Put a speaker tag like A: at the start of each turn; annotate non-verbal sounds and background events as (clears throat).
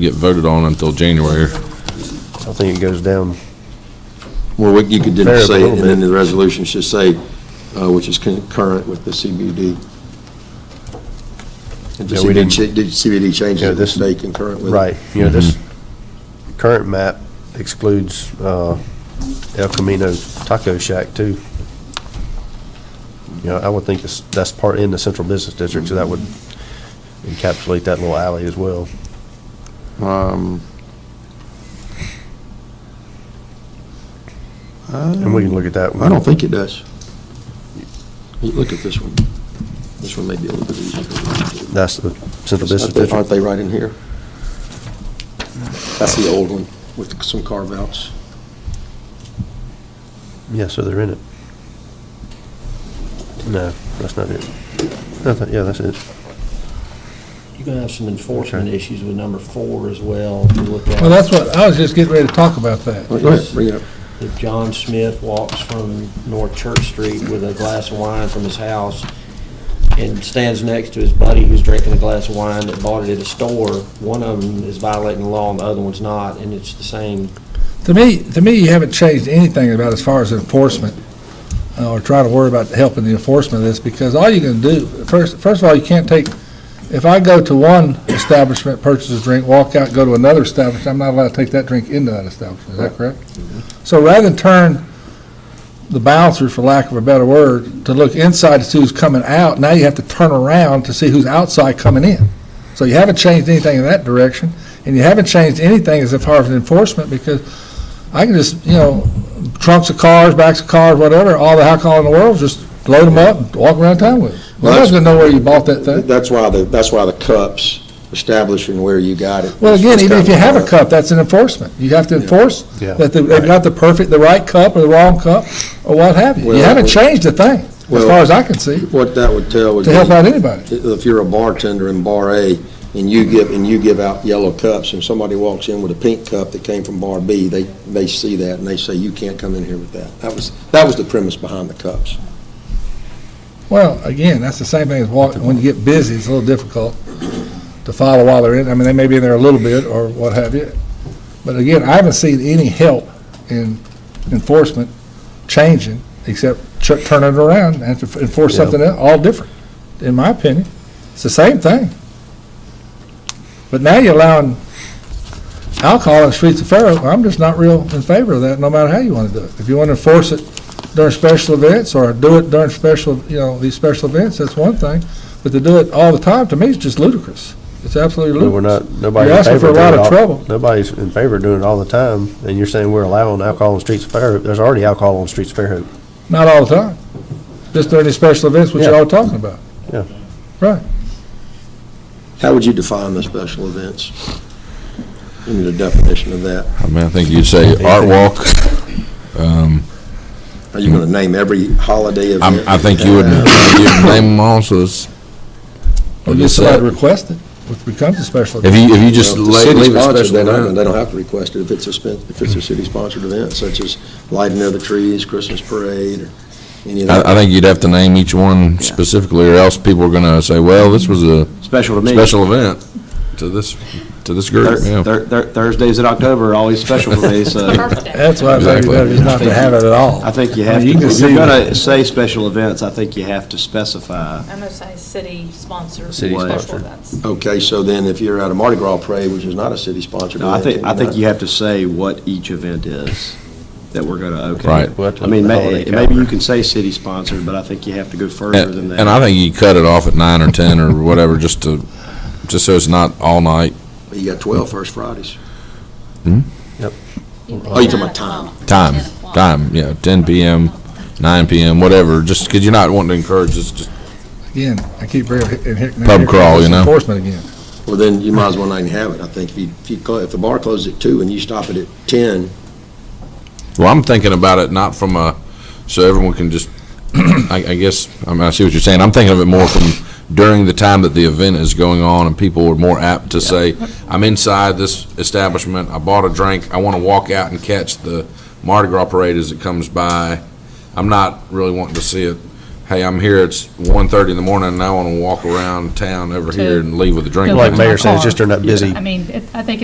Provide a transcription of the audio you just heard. A: get voted on until January.
B: I think it goes down.
C: Well, what you could
B: Fair,
C: just say,
B: a little
C: and then
B: bit.
C: the resolution should say, uh, which is concurrent with the CBD. If the
B: Yeah, we
C: CBD
B: didn't-
C: cha- the CBD changes,
B: Yeah,
C: it would
B: this-
C: stay concurrent with it.
B: Right, you know, this
C: Mm-hmm.
B: current map excludes uh, El Camino Taco Shack too. You know, I would think this- that's part in the central business district, so that would encapsulate that little alley as well.
D: Um,
B: And we can look at that.
C: I don't think it does. You Look at this one. This one may be a little bit easier.
B: That's the central business
C: Aren't they-
B: district.
C: Aren't they right in here? That's the old one with some carve-outs.
B: Yeah, so they're in it. No, that's not it. Nothing, yeah, that's it.
E: You're gonna have some enforcement
B: Okay.
E: issues with number four as well, if you look at.
F: Well, that's what, I was just getting ready to talk about that.
C: Go ahead, bring it up.
E: If John Smith walks from North Church Street with a glass of wine from his house and stands next to his buddy who's drinking a glass of wine that bought it at a store, one of them is violating the law and the other one's not, and it's the same.
F: To me, to me, you haven't changed anything about as far as enforcement, uh, or try to worry about helping the enforcement of this, because all you can do, first, first of all, you can't take, if I go to one establishment, purchase a drink, walk out, go to another establishment, I'm not allowed to take that drink into that establishment, is that correct? So rather than turn the bouncers, for lack of a better word, to look inside to see who's coming out, now you have to turn around to see who's outside coming in. So you haven't changed anything in that direction, and you haven't changed anything as far as enforcement, because I can just, you know, trunks of cars, backs of cars, whatever, all the alcohol in the world, just load them up, and walk around town with it.
C: Well, that's-
F: Nobody's gonna know where you bought that thing.
C: That's why the, that's why the cups, establishing where you got it.
F: Well,
C: is-
F: again,
C: is
F: even if you
C: kinda-
F: have a cup, that's an enforcement. You have to enforce
B: Yeah.
F: that they- they've got the perfect, the right cup or the wrong cup, or what have you. You
C: Well,
F: haven't
C: well-
F: changed a thing, as
C: Well-
F: far as I can see,
C: What that would tell would
F: to
C: be.
F: help out anybody.
C: if you're a bartender in Bar A and you give, and you give out yellow cups and somebody walks in with a pink cup that came from Bar B, they, they see that and they say, you can't come in here with that. That was, that was the premise behind the cups.
F: Well, again, that's the same thing as walking, when you get busy, it's a little difficult to follow while they're in, I mean, they may be in there a little bit or what have you. But again, I haven't seen any help in enforcement changing, except ch- turn it around and to enforce
B: Yeah.
F: something else, all different, in my opinion. It's the same thing. But now you're allowing alcohol on the streets of Fair Oak, I'm just not real in favor of that, no matter how you want to do it. If you want to enforce it during special events or do it during special, you know, these special events, that's one thing. But to do it all the time, to me, is just ludicrous. It's absolutely
B: But we're
F: ludicrous.
B: not, nobody's
F: You're
B: in
F: asking
B: favor
F: for a
B: of doing it
F: lot of
B: all-
F: trouble.
B: Nobody's in favor of doing it all the time, and you're saying we're allowing alcohol on the streets of Fairhope. There's already alcohol on the streets of Fairhope.
F: Not all the time. Just during these special events, which you're
B: Yeah.
F: all talking about.
C: How would you define the special events? Give me the definition of that.
A: I mean, I think you'd say art walk. Um,
C: Are you going to name every holiday
A: I'm,
C: event?
A: I think you would, you'd name them all, so it's.
F: Or get somebody to request it, which becomes a special
A: If
F: event.
A: you, if you
C: Well,
A: just
C: if the
A: lay-
C: city's
A: leave it
C: sponsored,
A: special
C: They don't,
A: around.
C: they don't have to request it if it's a, spen- if it's a city-sponsored event, such as lighting of the trees, Christmas parade, or any of that.
A: I, I think you'd have to name each one specifically, or else people are gonna say, well, this was a
G: Special to me.
A: special event to this, to this group,
G: Thur-
A: yeah.
G: thur- thur- Thursdays in October are always special for me,
H: (laughs)
G: so
H: birthday.
F: That's why I think it's
A: Exactly.
F: better just not to have it at all.
G: I think you
F: I mean,
G: have to,
F: you can
G: if you're
F: see that.
G: gonna say special events, I think you have to specify.
H: I'm gonna say city sponsor
G: City
H: special
G: sponsored.
H: events.
C: Okay, so then if you're at a Mardi Gras parade, which is not a city-sponsored
G: No,
C: event.
G: I think,
C: then
G: I
C: you're
G: think
C: not-
G: you have to say what each event is that we're gonna okay.
A: Right.
B: We'll have to
G: I mean,
B: look at the
G: may-
B: holiday
G: maybe you
B: calendar.
G: can say city-sponsored, but I think you have to go further than
A: And
G: that.
A: and I think you cut it off at nine or ten or whatever, just to, just so it's not all night.
C: You got 12 First Fridays.
A: Hmm?
H: Oh,
C: Oh, you're talking about time.
A: Time, time, yeah, ten PM, nine PM, whatever, just because you're not wanting to encourage, this. just,
F: Again, I keep bringing it in Hickman.
A: Pub
F: here
A: crawl,
F: comes
A: you know?
F: Enforcement again.
C: Well, then you might as well not even have it, I think. If you, if you, clo- if the bar closes at two and you stop it at 10,
A: well, I'm thinking about it not from a, so everyone can just, (clears throat) I, I guess, I mean, I see what you're saying. I'm thinking of it more from during the time that the event is going on and people are more apt to say, I'm inside this establishment, I bought a drink, I want to walk out and catch the Mardi Gras parade as it comes by. I'm not really wanting to see it. Hey, I'm here, it's one thirty in the morning and I want to walk around town over here and leave with a drink.
H: To-
A: in
H: Like
A: my
B: Like
H: Yeah.
B: Mayor
H: Mayor
B: said,
H: said,
B: it's just during that busy
H: I mean, it- I think